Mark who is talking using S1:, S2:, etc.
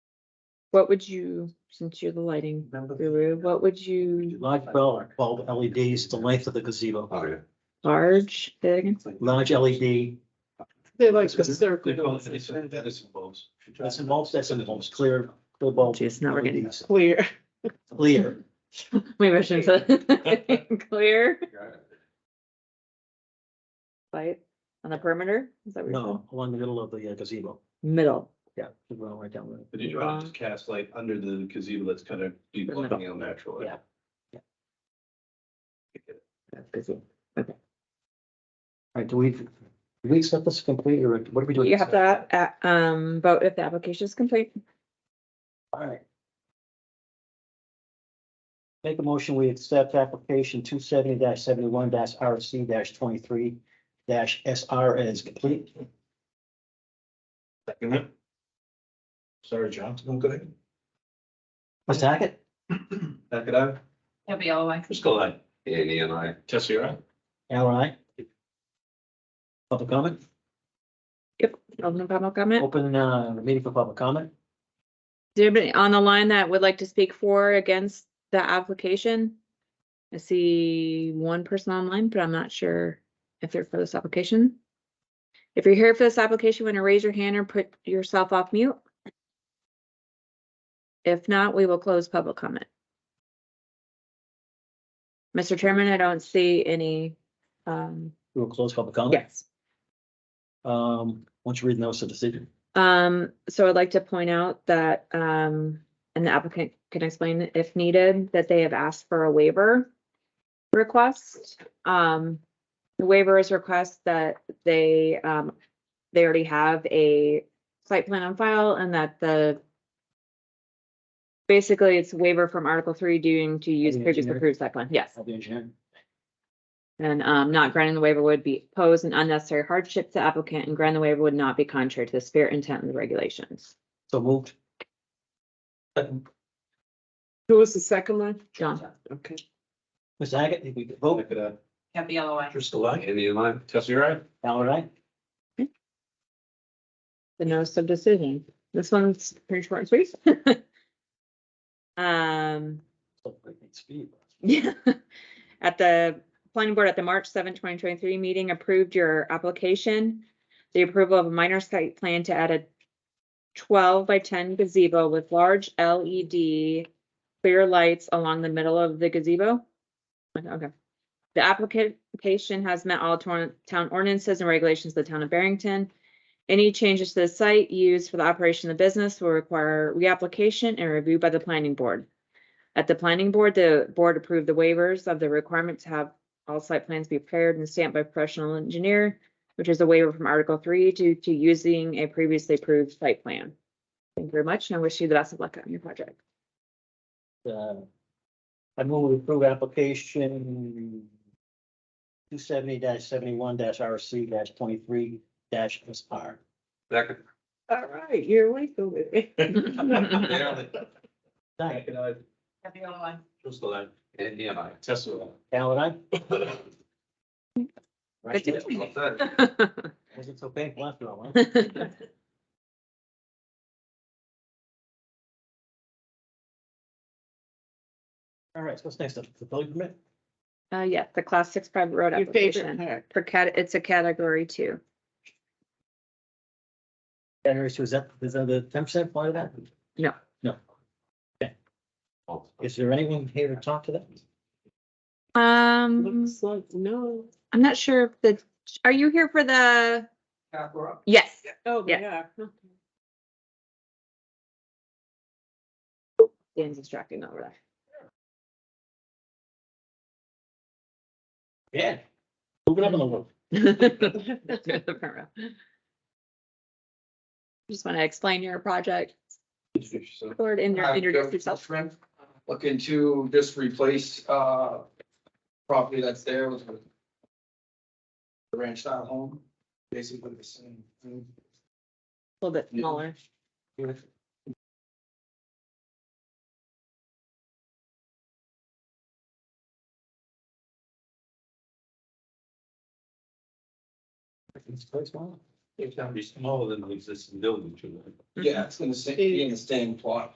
S1: What would you, since you're the lighting
S2: Remember?
S1: guru, what would you,
S2: Large bulb, bulb LEDs, the length of the gazebo,
S3: Oh, yeah.
S1: large, say that again?
S2: large E LED,
S4: They like
S2: Because
S4: circle.
S3: That is involves.
S2: that's involved, that's involved, clear, the bulb.
S1: Jeez, now we're getting-
S2: LEDs,
S4: Clear.
S2: Clear,
S1: Maybe I shouldn't say that. Clear light on the perimeter? Is that what you're
S2: no, along the middle of the uh, gazebo,
S1: saying? Middle.
S2: yeah, the ground right down there.
S3: But you try to just cast light under the gazebo that's kind of be
S1: Doesn't
S3: looking ill natural.
S2: Yeah.
S1: That's busy.
S2: All right, do we, do we accept this complete, or what are we doing?
S1: You have to, a- um, vote if the application is complete.
S2: All right. Make a motion, we accept application two seventy seventy-one RC twenty-three SR as complete.
S3: Sorry, John, I'm good.
S2: Ms. Hackett?
S3: Back it up.
S5: It'll be all like.
S3: Just go ahead. Andy and I. Jesse, right?
S2: Al, aye. Public comment,
S1: Alderman Pownell comment?
S2: open, uh, the meeting for public
S1: Is
S2: comment.
S1: there anybody on the line that would like to speak for or against the application? I see one person online, but I'm not sure if they're for this application. If you're here for this application, want to raise your hand or put yourself off mute? If not, we will close public comment. Mr. Chairman, I don't see any, um,
S2: We will close public comment.
S1: yes.
S2: Um, once you read notice of decision.
S1: Um, so I'd like to point out that, um, and the applicant can explain if needed, that they have asked for a waiver request. Um, the waiver is request that they, um, they already have a site plan on file and that the basically it's waiver from Article three due to use
S2: Yeah,
S1: previous
S2: generic.
S1: approved site plan, yes.
S2: of the engineer.
S1: And um, not granting the waiver would be pose an unnecessary hardship to applicant and granting the waiver would not be contrary to the spirit intent and the regulations.
S2: So moved.
S4: Who was the second line?
S1: John?
S4: Okay.
S2: Ms. Hackett, if we could vote,
S3: it up.
S5: It'll be all like.
S3: Just go ahead. Andy and I. Jesse, right?
S2: Al, aye.
S1: the notice of decision. This one's pretty short and sweet. Um,
S2: So, great speed.
S1: yeah, at the planning board at the March 7, 2023 meeting approved your application. The approval of a minor site plan to add a twelve by ten gazebo with large LED clear lights along the middle of the gazebo. Okay. The application has met all torn- town ordinances and regulations of the town of Barrington. Any changes to the site used for the operation of the business will require reapplication and review by the planning board. At the planning board, the board approved the waivers of the requirement to have all site plans be prepared and stamped by a professional engineer, which is a waiver from Article three to, to using a previously approved site plan. Thank you very much, and I wish you the best of luck on your project.
S2: uh, I move we approve application two seventy seventy-one RC twenty-three SR.
S3: Back it.
S4: All right, you're legal with it.
S2: Thank you.
S5: It'll be all like.
S3: Just go ahead. Andy and I. Jesse.
S2: Al and I?
S1: Good to-
S3: That
S2: Was it okay? Well, after all, huh?
S1: Thank
S2: All right, so what's next up? The building permit?
S1: Uh, yeah, the class six private road
S4: Your favorite
S1: application.
S4: part.
S1: For cat, it's a category two.
S2: January, so is that, is that the ten percent part of that?
S1: No.
S2: No. Okay. Is there anyone here to talk to that?
S1: Um,
S4: Looks like, no.
S1: I'm not sure if the, are you here for the, yes,
S4: Oh,
S1: Yeah.
S4: yeah.
S1: Dan's distracting over there.
S2: Yeah. Moving up a little.
S1: Just want to explain your project, or in
S6: Hi,
S3: Uh,
S1: your,
S6: I'm
S1: introduce
S6: Joe
S1: yourself.
S6: Friend. Looking to just replace, uh, property that's there with a ranch style home, basically the same. thing.
S1: A little bit
S6: Yeah.
S1: smaller.
S2: It's quite small.
S3: It's gonna be smaller than the existing building, too.
S6: Yeah, it's gonna stay, be in the same plot.